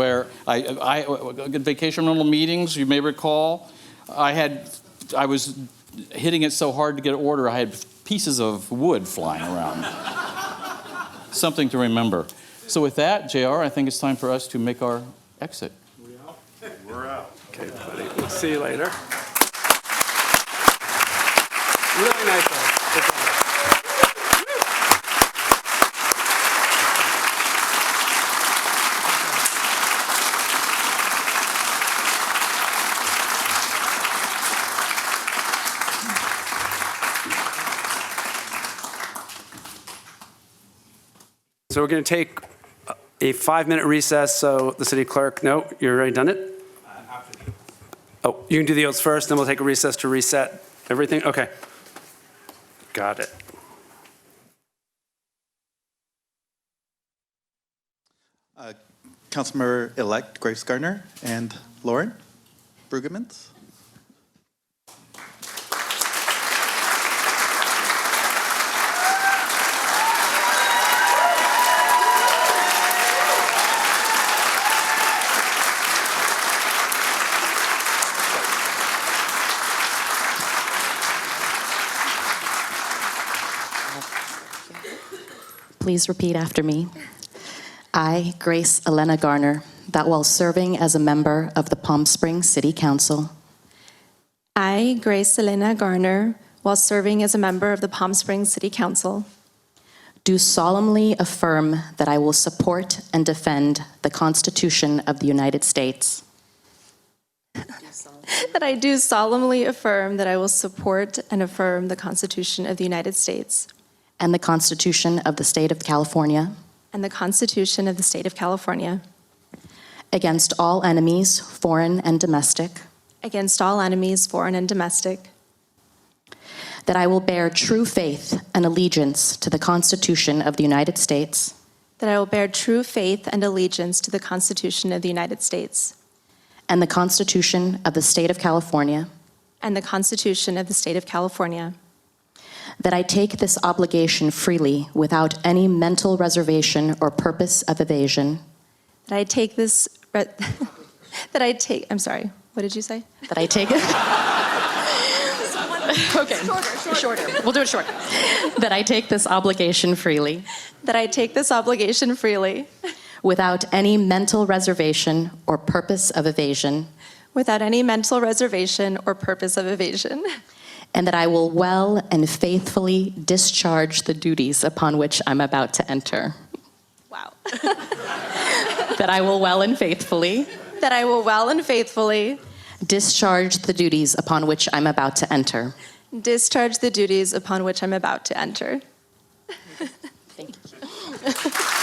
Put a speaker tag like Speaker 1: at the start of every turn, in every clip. Speaker 1: where I, I, at vacation rental meetings, you may recall, I had, I was hitting it so hard to get order, I had pieces of wood flying around. Something to remember. So with that, JR, I think it's time for us to make our exit.
Speaker 2: Okay, buddy, we'll see you later. Really nice one. Good job. So we're going to take a- a five-minute recess, so the city clerk, no, you already done it? Oh, you can do the oaths first, then we'll take a recess to reset everything? Okay. Got it.
Speaker 3: Councilmember-elect Grace Gardner and Lauren Brueggemans.
Speaker 4: Please repeat after me. I, Grace Elena Garner, that while serving as a member of the Palm Springs City Council,
Speaker 5: I, Grace Elena Garner, while serving as a member of the Palm Springs City Council,
Speaker 4: do solemnly affirm that I will support and defend the Constitution of the United States
Speaker 5: that I do solemnly affirm that I will support and affirm the Constitution of the United States
Speaker 4: and the Constitution of the State of California
Speaker 5: and the Constitution of the State of California
Speaker 4: against all enemies, foreign and domestic,
Speaker 5: against all enemies, foreign and domestic,
Speaker 4: that I will bear true faith and allegiance to the Constitution of the United States
Speaker 5: that I will bear true faith and allegiance to the Constitution of the United States
Speaker 4: and the Constitution of the State of California.
Speaker 5: and the Constitution of the State of California,
Speaker 4: That I take this obligation freely without any mental reservation or purpose of evasion.
Speaker 5: that I take this, re- that I take, I'm sorry, what did you say?
Speaker 4: That I take it. okay. Shorter, shorter. We'll do it short. that I take this obligation freely
Speaker 5: That I take this obligation freely
Speaker 4: without any mental reservation or purpose of evasion.
Speaker 5: without any mental reservation or purpose of evasion,
Speaker 4: And that I will well and faithfully discharge the duties upon which I'm about to enter.
Speaker 5: Wow.
Speaker 4: that I will well and faithfully
Speaker 5: that I will well and faithfully
Speaker 4: discharge the duties upon which I'm about to enter.
Speaker 5: discharge the duties upon which I'm about to enter.
Speaker 4: Thank you.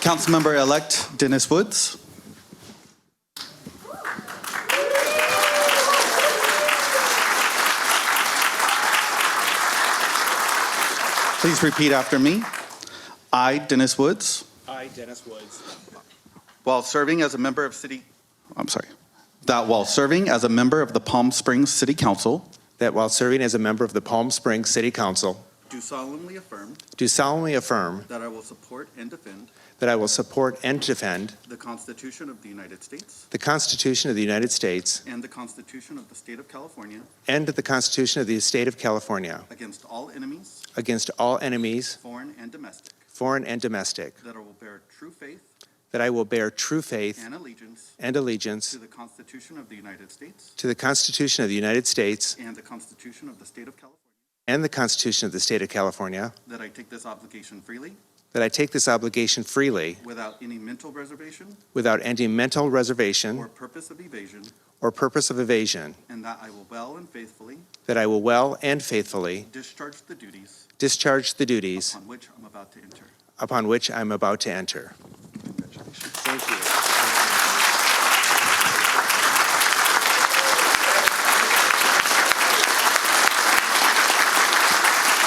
Speaker 3: Councilmember-elect Dennis Woods. Please repeat after me. I, Dennis Woods,
Speaker 6: I, Dennis Woods,
Speaker 3: while serving as a member of city, I'm sorry, that while serving as a member of the Palm Springs City Council,
Speaker 6: that while serving as a member of the Palm Springs City Council,
Speaker 3: do solemnly affirm
Speaker 6: do solemnly affirm
Speaker 3: that I will support and defend
Speaker 6: that I will support and defend
Speaker 3: the Constitution of the United States
Speaker 6: the Constitution of the United States
Speaker 3: and the Constitution of the State of California
Speaker 6: and the Constitution of the State of California
Speaker 3: against all enemies,
Speaker 6: against all enemies,
Speaker 3: foreign and domestic,
Speaker 6: foreign and domestic,
Speaker 3: that I will bear true faith
Speaker 6: that I will bear true faith
Speaker 3: and allegiance
Speaker 6: and allegiance
Speaker 3: to the Constitution of the United States
Speaker 6: to the Constitution of the United States
Speaker 3: and the Constitution of the State of California,
Speaker 6: and the Constitution of the State of California,
Speaker 3: that I take this obligation freely
Speaker 6: that I take this obligation freely
Speaker 3: without any mental reservation
Speaker 6: without any mental
Speaker 3: or
Speaker 6: reservation
Speaker 3: purpose of evasion,
Speaker 6: or purpose of evasion,
Speaker 3: and that I will well and faithfully
Speaker 6: that I will well and faithfully
Speaker 3: discharge the duties
Speaker 6: discharge the duties
Speaker 3: on which I'm about to enter.
Speaker 6: upon which I am about to enter.
Speaker 3: Congratulations.